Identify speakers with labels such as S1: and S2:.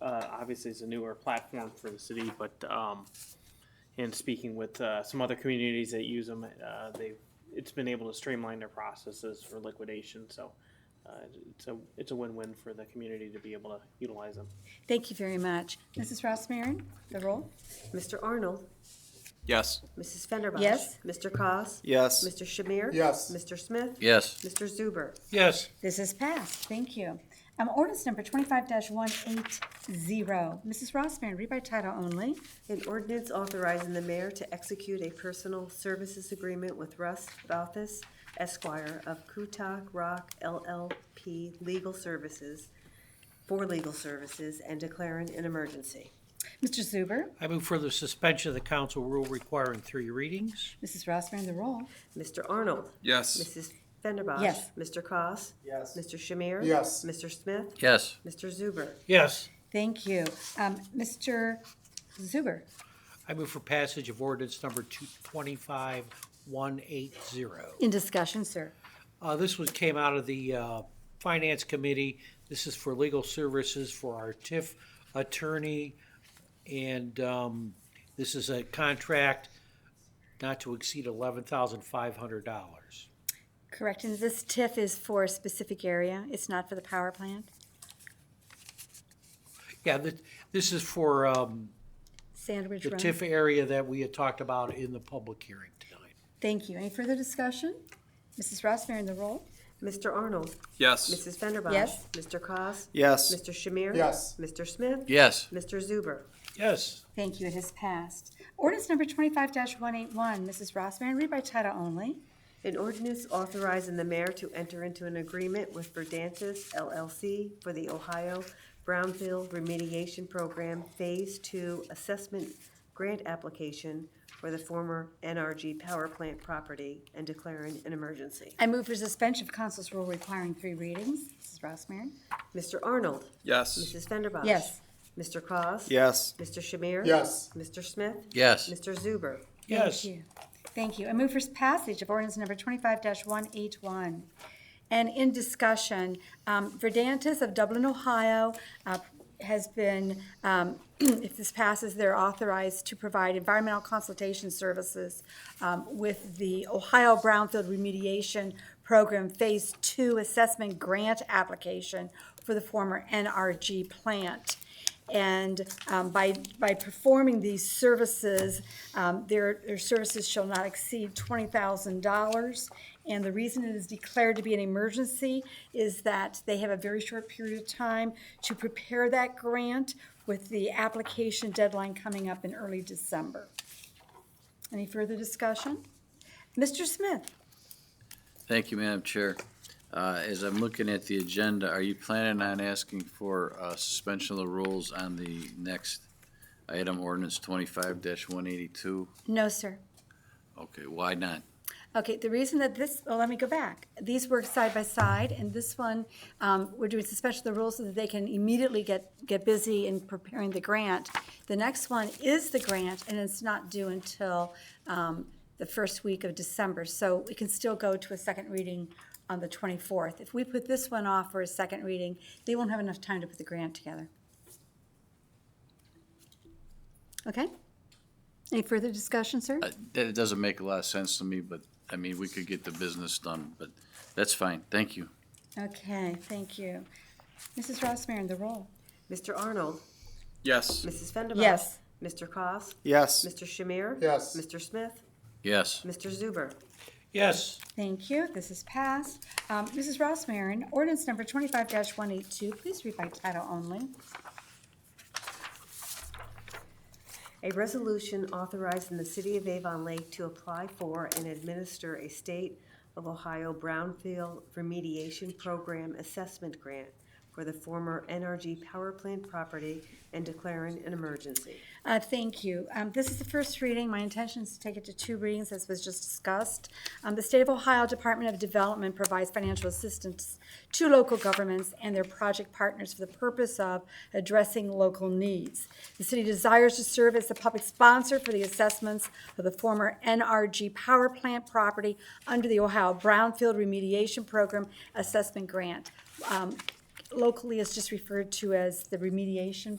S1: uh, obviously it's a newer platform for the city, but, um, in speaking with, uh, some other communities that use them, uh, they've, it's been able to streamline their processes for liquidation, so, uh, it's a, it's a win-win for the community to be able to utilize them.
S2: Thank you very much. Mrs. Ross Marin, the roll?
S3: Mr. Arnold.
S4: Yes.
S3: Mrs. Fenderbosh.
S2: Yes.
S3: Mr. Cos.
S4: Yes.
S3: Mr. Shamir.
S5: Yes.
S3: Mr. Smith.
S4: Yes.
S3: Mr. Zuber.
S5: Yes.
S2: This is passed, thank you. Um, ordinance number twenty-five one eight zero. Mrs. Ross Marin, read by title only.
S3: An ordinance authorizing the mayor to execute a personal services agreement with Russ Balthus Esquire of Kutak Rock LLP Legal Services for legal services and declaring an emergency.
S2: Mr. Zuber,
S5: I move for the suspension of the council rule requiring three readings.
S2: Mrs. Ross Marin, the roll?
S3: Mr. Arnold.
S4: Yes.
S3: Mrs. Fenderbosh.
S2: Yes.
S3: Mr. Cos.
S5: Yes.
S3: Mr. Shamir.
S5: Yes.
S3: Mr. Smith.
S4: Yes.
S3: Mr. Zuber.
S5: Yes.
S2: Thank you. Um, Mr. Zuber,
S5: I move for passage of ordinance number two twenty-five one eight zero.
S2: in discussion, sir.
S5: Uh, this was, came out of the, uh, Finance Committee. This is for legal services for our TIF attorney. And, um, this is a contract not to exceed eleven thousand five hundred dollars.
S2: Correct, and this TIF is for a specific area, it's not for the power plant?
S5: Yeah, that, this is for, um,
S2: Sandwich
S5: the
S2: Run?
S5: TIF area that we had talked about in the public hearing tonight.
S2: Thank you. Any further discussion? Mrs. Ross Marin, the roll?
S3: Mr. Arnold.
S4: Yes.
S3: Mrs. Fenderbosh.
S2: Yes.
S3: Mr. Cos.
S4: Yes.
S3: Mr. Shamir.
S5: Yes.
S3: Mr. Smith.
S4: Yes.
S3: Mr. Zuber.
S5: Yes.
S2: Thank you, it has passed. Ordinance number twenty-five one eight one, Mrs. Ross Marin, read by title only.
S3: An ordinance authorizing the mayor to enter into an agreement with Verdantis LLC for the Ohio Brownfield Remediation Program Phase Two Assessment Grant Application for the former NRG Power Plant property and declaring an emergency.
S2: I move for suspension of council's rule requiring three readings. Mrs. Ross Marin?
S3: Mr. Arnold.
S4: Yes.
S3: Mrs. Fenderbosh.
S2: Yes.
S3: Mr. Cos.
S4: Yes.
S3: Mr. Shamir.
S5: Yes.
S3: Mr. Smith.
S4: Yes.
S3: Mr. Zuber.
S5: Yes.
S2: Thank you. Thank you. I move for passage of ordinance number twenty-five one eight one. And in discussion, um, Verdantis of Dublin, Ohio, uh, has been, um, if this passes, they're authorized to provide environmental consultation services um, with the Ohio Brownfield Remediation Program Phase Two Assessment Grant Application for the former NRG plant. And um, by, by performing these services, um, their, their services shall not exceed $20,000. And the reason it is declared to be an emergency is that they have a very short period of time to prepare that grant with the application deadline coming up in early December. Any further discussion? Mr. Smith?
S6: Thank you, Madam Chair. Uh, As I'm looking at the agenda, are you planning on asking for uh, suspension of the rules on the next item, ordinance twenty-five one eighty-two?
S2: No, sir.
S6: Okay, why not?
S2: Okay, the reason that this, well, let me go back. These work side by side, and this one, um, we're doing suspension of the rules so that they can immediately get, get busy in preparing the grant. The next one is the grant, and it's not due until um, the first week of December. So we can still go to a second reading on the 24th. If we put this one off for a second reading, they won't have enough time to put the grant together. Okay? Any further discussion, sir?
S6: Uh, That it doesn't make a lot of sense to me, but, I mean, we could get the business done, but that's fine, thank you.
S2: Okay, thank you. Mrs. Ross Marin, the roll.
S3: Mr. Arnold.
S4: Yes.
S3: Mrs. Fenderbosh.
S2: Yes.
S3: Mr. Cos.
S4: Yes.
S3: Mr. Shamir?
S5: Yes.
S3: Mr. Smith?
S6: Yes,
S3: Mr. Zuber?
S5: Yes.
S2: Thank you, this is passed. Um, Mrs. Ross Marin, ordinance number twenty-five one eight two, please read by title only.
S3: A resolution authorizing the City of Avon Lake to apply for and administer a State of Ohio Brownfield Remediation Program Assessment Grant for the former NRG Power Plant property and declaring an emergency.
S2: Uh, thank you. Um, this is the first reading. My intention is to take it to two readings, as was just discussed. Um, the State of Ohio Department of Development provides financial assistance to local governments and their project partners for the purpose of addressing local needs. The city desires to serve as the public sponsor for the assessments of the former NRG power plant property under the Ohio Brownfield Remediation Program Assessment Grant. Um, locally, it's just referred to as the remediation